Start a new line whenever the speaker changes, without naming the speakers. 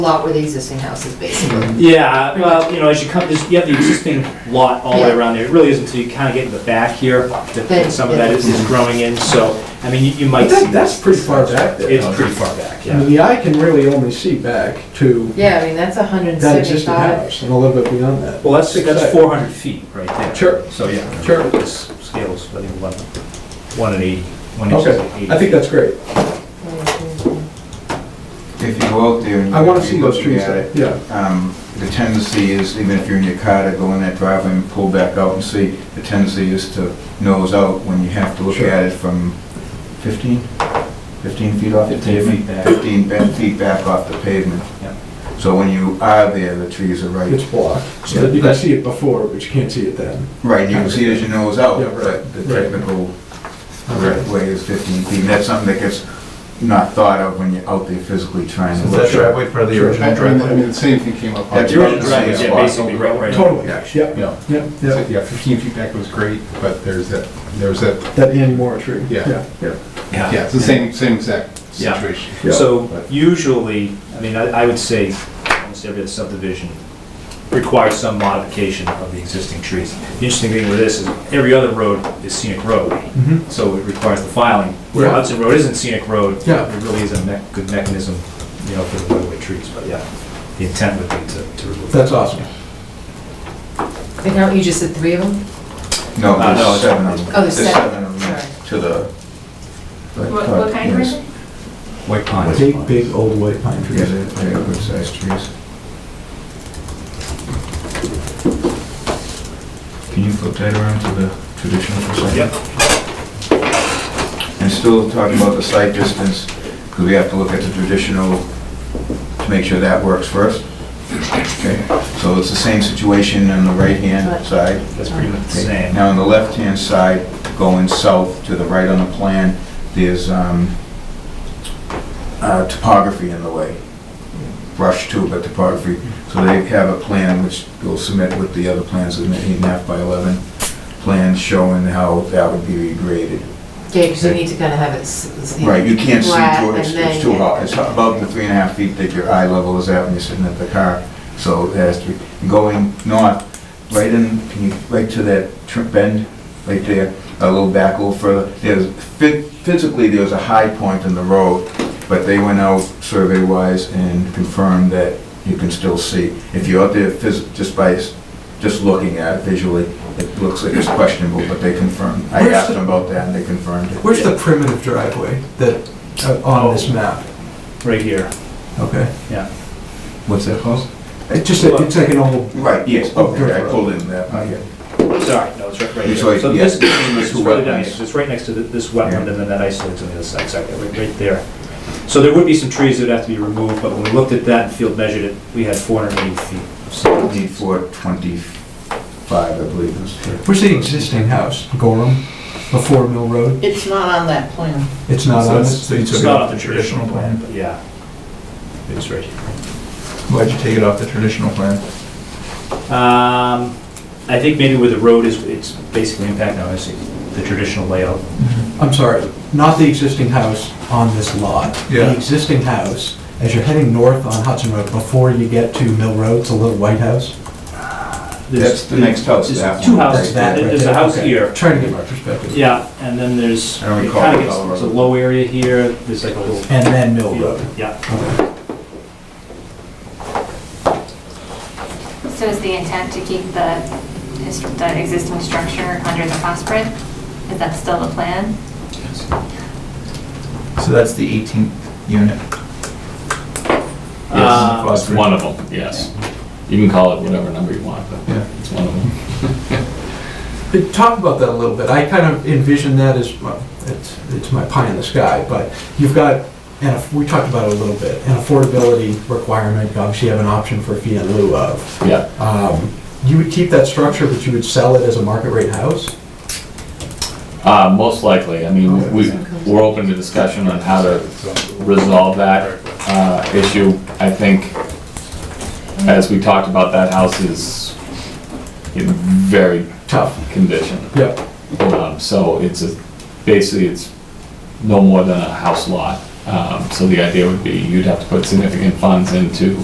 lot where the existing house is
Mm-hmm.
basically.
Yeah, well, you know, as you come, there's- you have the existing lot all the way
Yeah.
around there. It really isn't until you kind of get in the back here
Then,
that some of that
yeah.
is is growing in, so, I mean, you- you
I
might see.
think that's pretty far back there.
It's pretty far back,
I
yeah.
mean, the eye can really only see back to
Yeah, I mean, that's a hundred and
that existing
seventy-five.
house and a little bit beyond that.
Well, that's,
Six
that's
side.
400 feet right there.
Sure.
So, yeah.
Sure.
This scales, I think, 11, 1 and 80. One inch is
Okay,
like 80.
I think that's great.
If you go out there and
I want to
you're
see those
looking
trees
at
there,
it,
yeah.
um, the tendency is, even if you're in your car to go in that driveway and pull back out and see, the tendency is to nose out when you have to look
Sure.
at it from 15, 15 feet off the
15 feet
pavement?
back.
15 ba- feet back off the pavement.
Yep.
So when you are there, the trees are
It's
right,
blocked, so that you can see it before, but you can't see it then.
right, and you can see it as you nose out,
Yeah, right,
but the
right.
technical
Okay.
correct way is 15 feet. And that's something that gets not thought of when you're out there physically trying to
Is
look.
that driveway part of the
Sure.
original
I mean, I
driveway?
mean, the same thing came up. on-
That's
The original driveway, yeah,
Yeah.
basically, right, right.
Totally, yeah,
Actually,
yeah,
Yeah, So,
yeah.
yeah, 15 feet back was great, but there's that, there's that,
That Annie Moore tree,
Yeah.
yeah, yeah.
yeah, it's the same, same exact
Yeah.
situation.
Yeah.
So usually, I mean, I I would say almost every other subdivision requires some modification of the existing trees. The interesting thing with this is every other road is scenic road,
Mhm.
so it requires the filing. Where
Right.
Hudson Road isn't scenic road,
Yeah.
it really is a me- good mechanism, you know, for the roadway trees, but yeah, the intent would be to to remove.
That's awesome.
And now you just said three of them?
No,
Uh, no,
there's
it's-
seven of them.
Oh, there's seven.
of
Sorry.
them to the. uh,
What, what kind of person?
White pine.
Big, big old white pine
Trees,
trees.
they have good sized trees. Can you flip that around to the traditional for a second?
Yep.
And still talking about the site distance, because we have to look at the traditional to make sure that works first. Okay, so it's the same situation on the right-hand side.
That's pretty much the
Okay,
same.
Now, on the left-hand side, going south to the right on the plan, there's um, uh, topography in the way. Brush too, but topography. So they have a plan which they'll submit with the other plans, an eight and a half by 11 plan showing how that would be regraded.
Yeah, because you need to kind of have it. s- s- you know,
Right, you can't see
flat
through it, it's-
and then-
it's too hot. It's above the three and a half feet that your eye level is at when you're sitting at the car. So it has to be, going north, right in, can you, right to that tr- bend, right there, a little back, a little further. There's, phy- physically, there was a high point in the road, but they went out survey-wise and confirmed that you can still see. If you're out there phys, just by, s- just looking at it visually, it looks like it's questionable, but they confirmed. I
Where's
asked
the-
them about that and they confirmed it.
Where's the primitive driveway that, uh, on this map?
Right here,
Okay.
yeah.
What's that called?
It's just, a- it's like an old,
Right, yes,
Oh, good.
okay, I pulled in that, oh, yeah.
Sorry, no, it's right, right here.
It's
So
like-
this,
yeah,
it's
two
right down
wetlands.
here, so it's right next to the- this wetland, and then that isolates on the other side, exactly, right, right there. So there would be some trees that would have to be removed, but when we looked at that and field measured it, we had four hundred and eighty feet. of soil.
Twenty-four, twenty-five, I believe is.
where's the existing house? Gorham, before Mill Road?
It's not on that plan.
It's not
So
on
it's-
this?
So you
It's
took it
not on
off
the
the traditional plan?
but yeah. It's right here.
Why'd you take it off the traditional plan?
Um, I think maybe where the road is, it's basically impacting, obviously, the traditional layout.
I'm sorry, not the existing house on this lot.
Yeah.
The existing house, as you're heading north on Hudson Road, before you get to Mill Road, it's a little white house.
There's-
That's the next house,
there's
that
Two
one.
houses,
That's that
There-
right
there's a
there.
house
Okay.
here,
Trying to get my perspective.
yeah, and then there's,
I don't
it
recall
kind
the
of gets,
color of
there's a
it.
low area here, there's like a little.
And then Mill
field.
Road.
Yeah.
So is the intent to keep the, is the existing structure under the phosphid? Is that still the plan?
So that's the 18th unit.
Uh,
Yes.
It's one of them, yes. You can call it whatever number you want, but
Yeah.
it's one of them.
But Talk about that a little bit. I kind of envision that as, well, it's, it's my pie in the sky, but you've got, and if- we talked about it a little bit, an affordability requirement, obviously you have an option for fee in lieu of.
Yeah.
Um, You would keep that structure, but you would sell it as a market rate house?
Uh, most likely, I mean, we, we're open to discussion on how to resolve that, uh, issue. I think, as we talked about, that house is in very
Tough.
condition.
Yep.
Um, So it's a, basically, it's no more than a house lot. Um, So the idea would be you'd have to put significant funds into